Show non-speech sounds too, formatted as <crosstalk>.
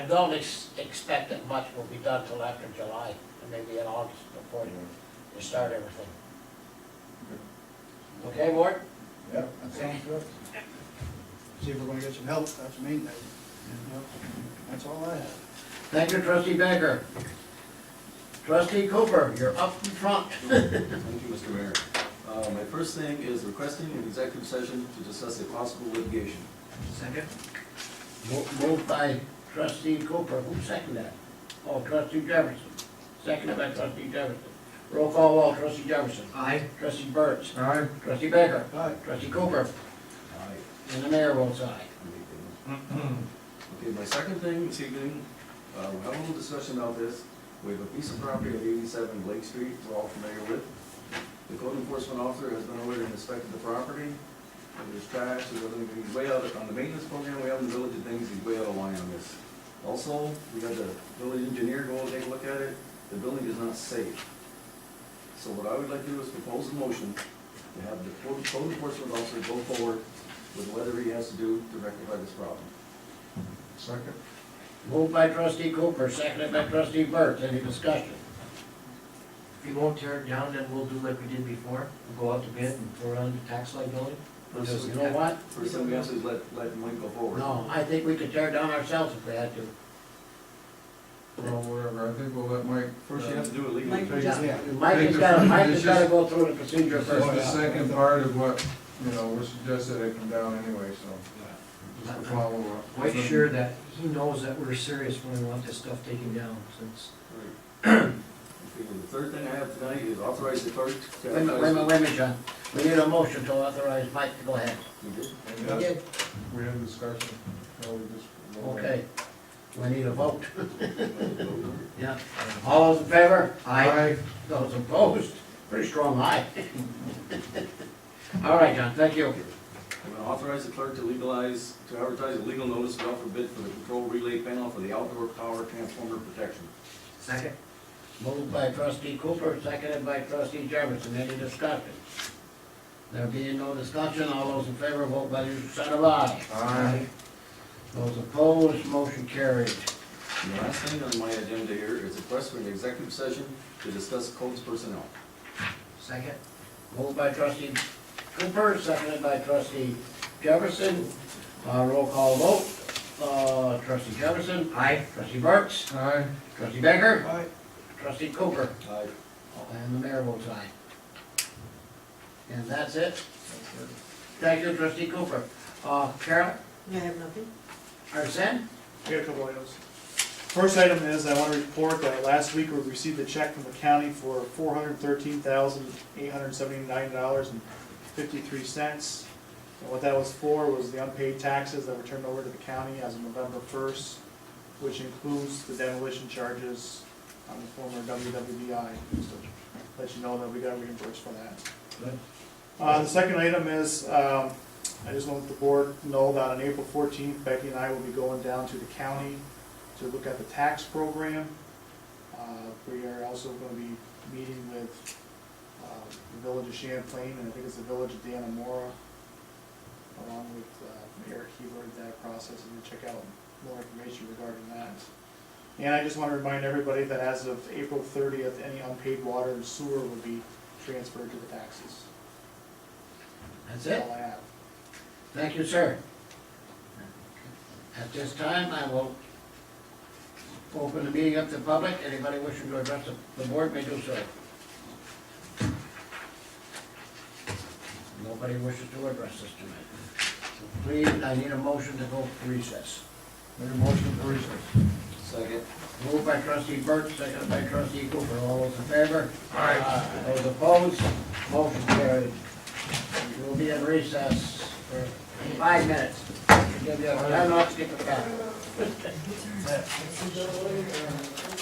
don't ex- expect that much will be done till after July, and maybe in August before you you start everything. Okay, Ward? Yeah, that sounds good. See if we're gonna get some help, that's the main thing. That's all I have. Thank you, trustee Baker. Trustee Cooper, you're up in front. Thank you, Mr. Mayor. Uh, My first thing is requesting an executive session to discuss a possible litigation. Second. Moved by trustee Cooper, who seconded that? Oh, trustee Jefferson, seconded by trustee Jefferson. Roll call, all, trustee Jefferson. Aye. Trustee Burts. Aye. Trustee Baker. Aye. Trustee Cooper. Aye. And the mayor votes aye. Okay, my second thing this evening, uh, we're having a little discussion about this. We have a piece of property at eighty-seven Lake Street we're all familiar with. The code enforcement officer has been over there and inspected the property. And there's trash, there's other things, he's way out, of- on the maintenance program, way out in the village of things, he's way out of line on this. Also, we had the village engineer go and take a look at it, the building is not safe. So what I would like to do is propose a motion to have the code code enforcement officer go forward with whatever he has to do to rectify this problem. Second? Moved by trustee Cooper, seconded by trustee Burts. Any discussion? If <clears throat> you won't tear it down, then we'll do like we did before, we'll go out to bid and throw on the tax liability. Because you know what? First thing we have to is let, let Mike go forward. No, I think we could tear it down ourselves if we had to. Well, whatever, I think we'll let Mike. First you have Uh, to do it legally. Mike, Yeah. Mike has gotta, Mike has gotta go through the procedure This is the first. second part of what, you know, was suggested, I come down anyway, so just to follow up. Quite sure that he knows that we're serious when we want this stuff taken down, since Right. Okay, and The third thing I have tonight is authorize the clerk to. Wait a minute, wait a minute, wait a minute, John. We need a motion to authorize Mike to go ahead. You did? And that's- We have a discussion, so we just. Okay. We need a vote. Okay, Yeah. All those in favor? Aye. Those opposed? Pretty strong aye. <laughs> All right, John, thank you. I'm gonna Authorize the clerk to legalize, to advertise a legal notice of offer bid for the control relay panel for the outdoor power transformer protection. Second. Moved by trustee Cooper, seconded by trustee Jefferson. Any discussion? There being no discussion, all those in favor vote by the side of aye. Aye. Those opposed, motion carried. And The last thing on my agenda here is a request for an executive session to discuss codes personnel. Second. Moved by trustee Cooper, seconded by trustee Jefferson. Uh, roll call vote. Uh, trustee Jefferson, Aye. trustee Burks, Aye. trustee Baker, Aye. trustee Cooper, Aye. and the mayor votes aye. And that's it. Thank you, trustee Cooper. Uh, Carol, I have nothing. Arson? We have a couple items. First item is, I want to report that last week we received a check from the county for four hundred thirteen thousand, eight hundred seventy-nine dollars and fifty-three cents. And what that was for was the unpaid taxes that were turned over to the county as of November first, which includes the demolition charges on the former WWBI. Just to Let you know that we got reimbursed for that. Good. Uh, the second item is, um, I just want the board to know that on April fourteenth, Becky and I will be going down to the county to look at the tax program. Uh, we are also gonna be meeting with, uh, the village of Champlain, and I think it's the village of Danamora, along with, uh, Eric Hebert, that process, and check out more information regarding that. And I just wanna remind everybody that as of April thirtieth, any unpaid water and sewer will be transferred to the taxes. That's That's it. all I have. Thank you, sir. At this time, I will open the meeting up to the public. Anybody wishing to address the- the board may do so. Nobody wishes to address this tonight. So Please, I need a motion to go to recess. Make a motion for recess. Second. Moved by trustee Burt, seconded by trustee Cooper. All those in favor? Aye. Those opposed? Motion carried. We'll be in recess for five minutes. Give you a time off, skip a count.